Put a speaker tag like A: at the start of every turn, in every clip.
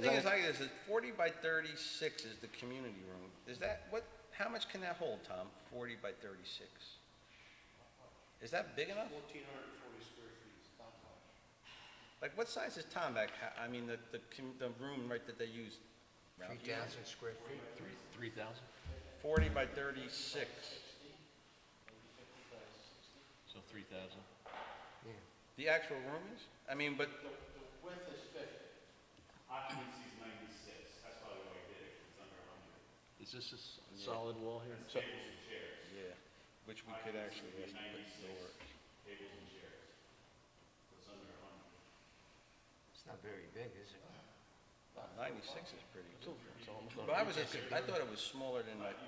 A: Thing is like this, is forty by thirty-six is the community room. Is that, what, how much can that hold, Tom? Forty by thirty-six? Is that big enough?
B: Fourteen hundred and forty square feet, it's not much.
A: Like, what size is Tom back, ha- I mean, the, the, com- the room, right, that they used? Ralph?
C: 3,000 square feet.
D: Three thousand?
A: Forty by thirty-six.
D: So three thousand.
C: Yeah.
A: The actual room is? I mean, but,
B: The, the width is fifty.
E: Occupancy is ninety-six, that's probably why I did it, 'cause it's under hundred.
D: Is this a s- solid wall here? So-
E: Tables and chairs,
A: yeah, which we could actually
E: Occupancy would
A: just put
E: be ninety-six,
A: lower.
E: tables and chairs. It's under hundred.
C: It's not very big, is it?
A: Ninety-six is pretty big.
D: it's almost
A: But I
D: on-
A: was, just- I thought it was smaller than like,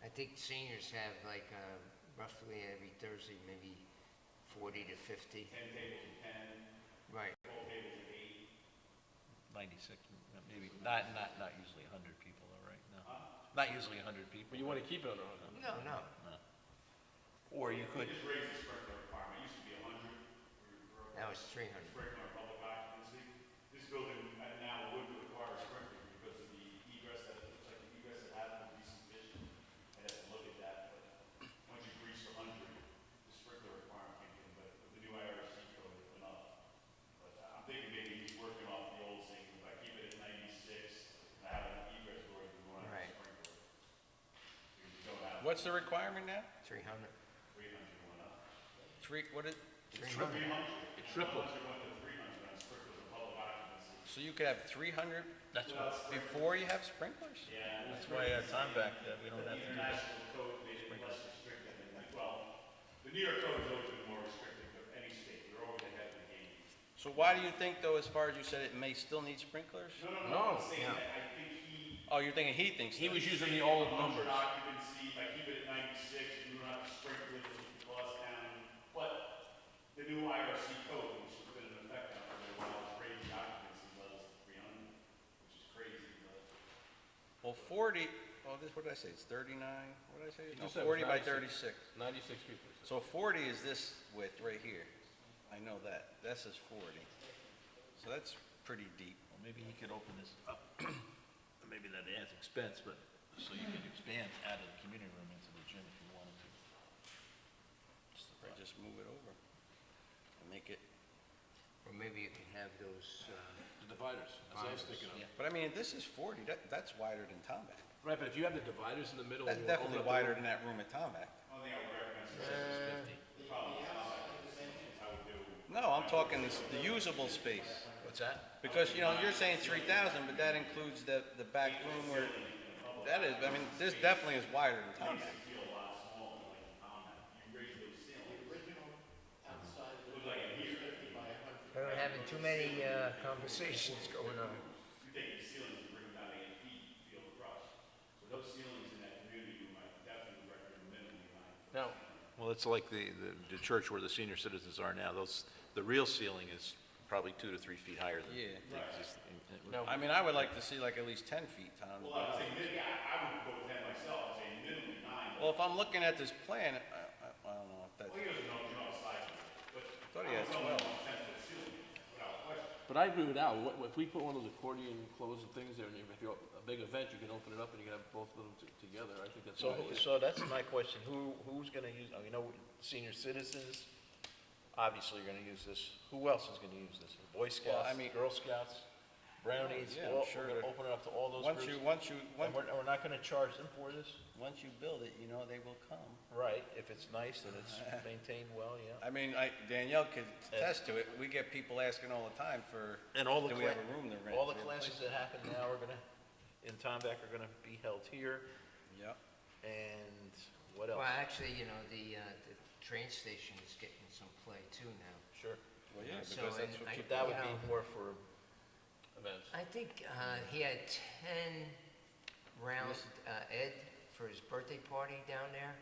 C: I think seniors have like uh, roughly every Thursday, maybe 40 to 50. 10 tables Right.
D: Ninety-six, m- maybe, not, not, not usually a hundred people, all right, no. Not usually a hundred people. But you wanna keep it under a hundred.
C: No, no.
D: Or you could,
E: Just raise the sprinkler requirement, it used to be hundred,
C: That was 300.
E: sprinkler public occupancy. This building uh, now would require a sprinkler because of the egress that, like the egress that happened would be sufficient. I'd have to look at that, but once you reach the hundred, the sprinkler requirement can't be, but with the new IRC code, it went up. But uh, I'm thinking maybe he's working off the old thing, if I keep it at ninety-six, I have an egress door, you want to have
C: Right.
E: a sprinkler. Because you don't have
A: what's the requirement now?
C: 300.
E: three hundred went up.
A: Three, what is,
C: 300.
D: it tripled.
E: Once you went to three hundred on sprinklers and public occupancy,
A: so you could have three hundred
D: That's what,
A: Before you have sprinklers? uh,
E: yeah.
D: that's why at time back, that we don't have to do that.
E: International code made it less restrictive, and, well, the New York code has always been more restrictive of any state, they're always ahead of the game.
A: So why do you think, though, as far as you said, it may still need sprinklers?
E: No, no, no,
D: No,
E: I'm saying
C: no.
E: that I think he,
A: Oh, you're thinking he thinks
D: He
A: that.
D: was using the old
E: hundred
D: numbers.
E: occupancy, if I keep it at ninety-six, you don't have to sprinkle it, you can buzz down, but the new IRC code, which has been in effect now for a while, has raised the occupancy levels to three hundred, which is crazy, but.
A: Well, forty, oh, this, what did I say, it's thirty-nine, what did I say? No,
D: just said it
A: forty
D: was
A: by
D: 96.
A: thirty-six.
D: Ninety-six people.
A: So forty is this width right here. I know that, that's his forty. So that's pretty deep.
D: Well, maybe he could open this up, maybe that adds expense, but, so you can expand out of the community room into the gym if you wanted to. Just a
A: Or
D: thought.
A: just move it over and make it,
C: Or maybe you can have those, uh,
F: The dividers, that's what I was
C: Dividers,
F: thinking of.
D: yeah.
A: but I mean, if this is forty, that, that's wider than Tomback.
F: Right, but if you have the dividers in the middle.
A: That's
F: and you open
A: definitely
F: up the
A: wider than
F: room-
A: that room at
E: Oh,
A: Tomback.
E: One thing I would recommend is
A: No, I'm talking this- the usable space.
D: What's that?
A: Because, you know, you're saying three thousand, but that includes the, the back room where, that is, I mean, this definitely is wider than Tom's.
C: we're having too many uh, conversations going on.
E: you take the ceilings and bring them down eight feet, you feel the rush. So those ceilings in that community, room, I definitely recommend minimally nine.
D: No.
G: Well, it's like the, the- the church where the senior citizens are now, those, the real ceiling is probably two to three feet higher than
A: Yeah.
G: the existing.
A: I mean, I would like to see like at least ten feet, Tom.
E: Well, I would say, mid- I, I would go with that myself, I'd say minimally nine.
A: Well, if I'm looking at this plan, I, I, I don't know if that,
E: Well, he doesn't know, you know, it's like, but
A: I thought he had twelve.
E: ten-foot ceiling, without question.
F: But I agree with Al, what, if we put one of those accordion closing things there, and if you're a big event, you can open it up and you can have both of them t- together, I think that's. a
D: So,
F: good
D: who-
F: idea.
D: so that's my question, who, who's gonna use, oh, you know, senior citizens, obviously are gonna use this, who else is gonna use this? Boy Scouts,
A: I mean-
D: Girl Scouts, Brownies,
A: Yeah, I'm
D: all,
A: sure
D: we're
A: that-
D: gonna open it up to all those
A: once you,
D: groups?
A: once you, once,
D: And we're, and we're not gonna charge them for this?
A: once you build it, you know they will come.
D: Right, if it's nice and it's maintained well, yeah.
A: I mean, I, Danielle could attest to it, we get people asking all the time for,
D: And all the,
A: do we
D: cla-
A: have a room to rent?
D: all the
A: Do we have a
D: classes that happen now are gonna, in Tomback are gonna be held here,
A: place? Yep.
D: and what else?
C: Well, actually, you know, the, uh, the train station is getting some play too now.
D: Sure,
A: Well, yeah,
C: So,
A: because that's
C: and
A: what
C: I-
A: people.
D: that would
C: Yeah.
D: be more for
F: Events.
C: I think uh, he had 10 rounds, uh, Ed, for his birthday party down there.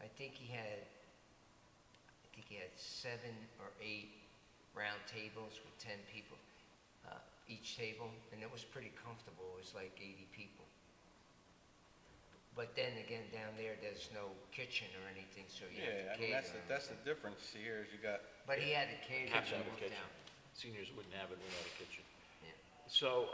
C: I think he had, I think he had seven or eight round tables with 10 people, uh, each table, and it was pretty comfortable. It was like 80 people. But then again, down there, there's no kitchen or anything, so you
A: Yeah, I
C: have to
A: mean,
C: cater.
A: that's, the that's the difference here, is you got
C: But he had a caterer
D: Kitchen,
C: worked
D: kitchen.
C: out.
D: seniors wouldn't have it without a kitchen.
C: Yeah.
D: So